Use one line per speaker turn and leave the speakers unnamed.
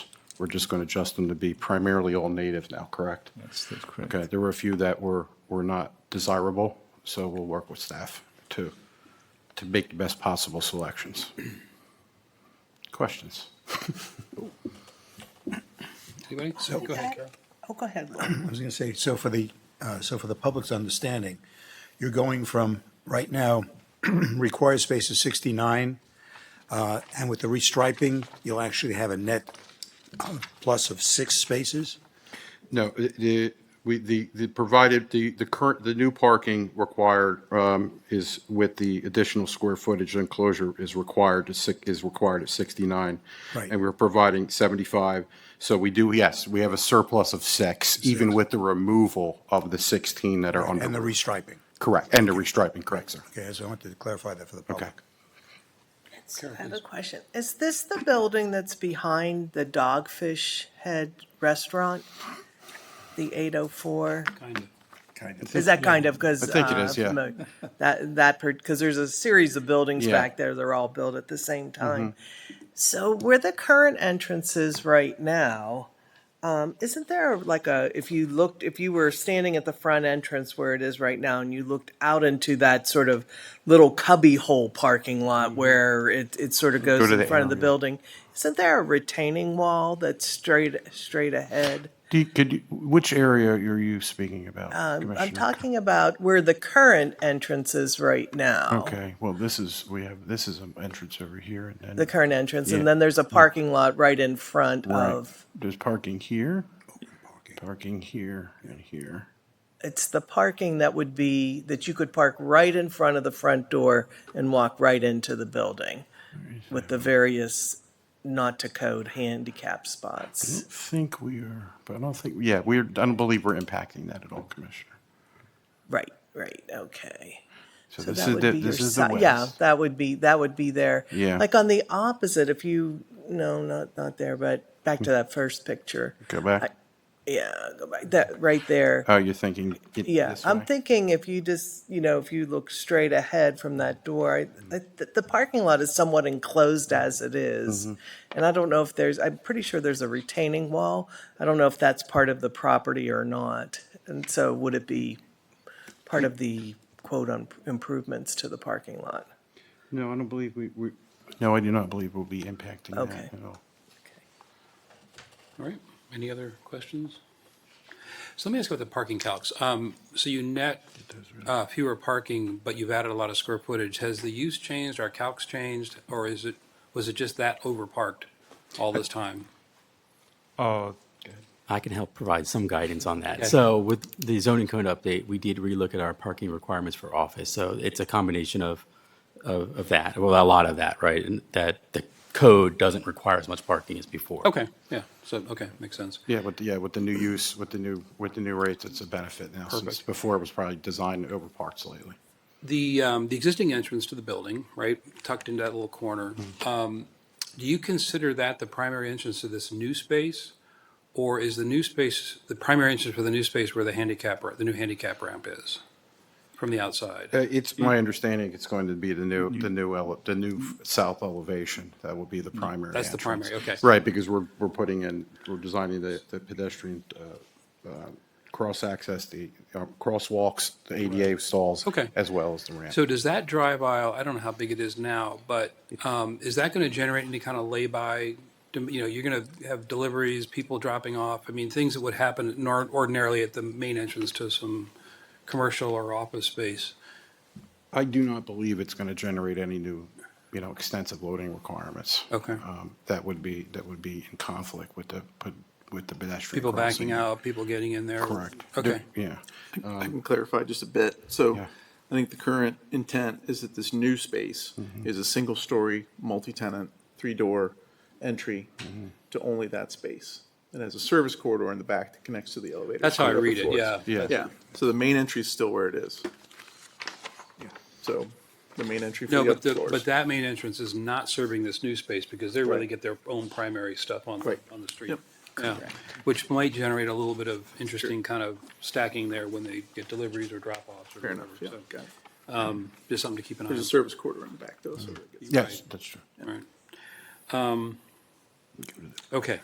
We're just going to adjust them to be primarily all native now, correct?
That's, that's correct.
Okay, there were a few that were, were not desirable, so we'll work with staff to, to make the best possible selections. Questions?
Anybody? Go ahead, Carol.
Oh, go ahead.
I was going to say, so for the, uh, so for the public's understanding, you're going from, right now, required space is 69, uh, and with the restriping, you'll actually have a net uh, plus of six spaces?
No, the- the, we, the, the provided, the, the current, the new parking required um, is with the additional square footage enclosure is required to, six is required at 69.
Right.
And we're providing 75. So we do, yes, we have a surplus of six, even with the removal of the 16 that are under.
And the restriping.
Correct, and the restriping, correct, sir.
Okay, so I wanted to clarify that for the
Okay.
public.
I have a question. Is this the building that's behind the Dogfish Head Restaurant? The 804?
Kind of.
Kind of.
Is that kind of, because.
I think it is, yeah.
That, that, because there's a series of buildings
Yeah. Mm-hmm.
back there, they're all built at the same time. So where the current entrance is right now, um, isn't there like a, if you looked, if you were standing at the front entrance where it is right now and you looked out into that sort of little cubby hole parking lot where it, it sort of goes
Mm-hmm. to
in
the
front
end,
of the
yeah.
building, isn't there a retaining wall that's straight, straight ahead?
Do you, could, you- which area are you speaking about?
Um, I'm
Commissioner?
talking about where the current entrance is right now.
Okay, well, this is, we have, this is an entrance over here and then.
The current entrance,
Yeah.
and then there's a parking lot right in front
Right.
of,
There's parking here, parking here, and here.
it's the parking that would be, that you could park right in front of the front door and walk right into the building with the various not-to-code handicap
I
spots.
don't think we are, but I don't think, yeah, we're, I don't believe we're impacting that at all, Commissioner.
Right, right, okay.
So
So
this
that
is,
would
the-
be
this
your
is the
si- Yeah,
west.
that would be, that would be there.
Yeah.
Like on the opposite, if you, no, not, not there, but back to that first picture.
Go back.
Yeah, go back, that, right there.
Oh, you're thinking. it-
Yeah,
this
I'm
way?
thinking if you just, you know, if you look straight ahead from that door, I, I- the, the parking lot is somewhat enclosed as it is. And I don't know if there's, I'm pretty sure there's a retaining wall. I don't know if that's part of the property or not. And so would it be part of the quote on improvements to the parking lot?
No, I don't believe we, we, no, I do not believe we'll be impacting
Okay.
that at all.
All right, any other questions? So let me ask about the parking calcs. Um, So you net uh, fewer parking, but you've added a lot of square footage. Has the use changed, our calcs changed, or is it, was it just that overparked all this time?
I can help provide some guidance on that.
Okay.
So with the zoning code update, we did relook at our parking requirements for office. So it's a combination of, of, of that, well, a lot of that, right? And that the code doesn't require as much parking as before.
Okay, yeah, so, okay, makes sense.
Yeah, with, yeah, with the new use, with the new, with the new rates, it's a benefit now, since
Perfect.
before it was probably designed over parts lately.
The, um, the existing entrance to the building, right, tucked into that little corner, um, do you consider that the primary entrance to this new space? Or is the new space, the primary entrance for the new space where the handicap, ra- the new handicap ramp is from the outside?
Uh, It's my understanding it's going to be the new, the new, ele- the new f- south elevation. That will be the primary.
Mm-hmm. That's the
entrance.
primary, okay.
Right, because we're, we're putting in, we're designing the, the pedestrian, uh, uh, cross access, the, uh, crosswalks, the ADA stalls.
Okay.
As well as the ramp.
So does that drive aisle, I don't know how big it is now, but, um, is that going to generate any kind of lay-by? dem- You know, you're going to have deliveries, people dropping off, I mean, things that would happen nor- ordinarily at the main entrance to some commercial or office space.
I do not believe it's going to generate any new, you know, extensive loading requirements.
Okay.
Um, That would be, that would be in conflict with the, with the pedestrian.
People backing
crossing.
out, people getting in there.
Correct.
Okay.
Yeah.
I can clarify just a bit. So
Yeah.
I think the current intent is that this new space is a single-story, multi-tenant, three-door entry to only that space. It has a service corridor in the back that connects to the elevator.
That's how I
to the upper
read it,
floors.
yeah.
Yeah.
Yeah, so the main entry is still where it is. So the main entry for
No,
the
but
upper
the, but
floors.
that main entrance is not serving this new space because they really
Right.
get their own primary stuff on, the
Right.
on the street.
Yep.
Yeah, which might generate a little bit of interesting kind of stacking there when they get deliveries or drop-offs or
Fair
whatever.
enough, yeah.
So,
got it.
Just something to keep an eye on.
There's a service corridor in the back though, so it gets.
Yes, that's true.
Right. Um, Okay,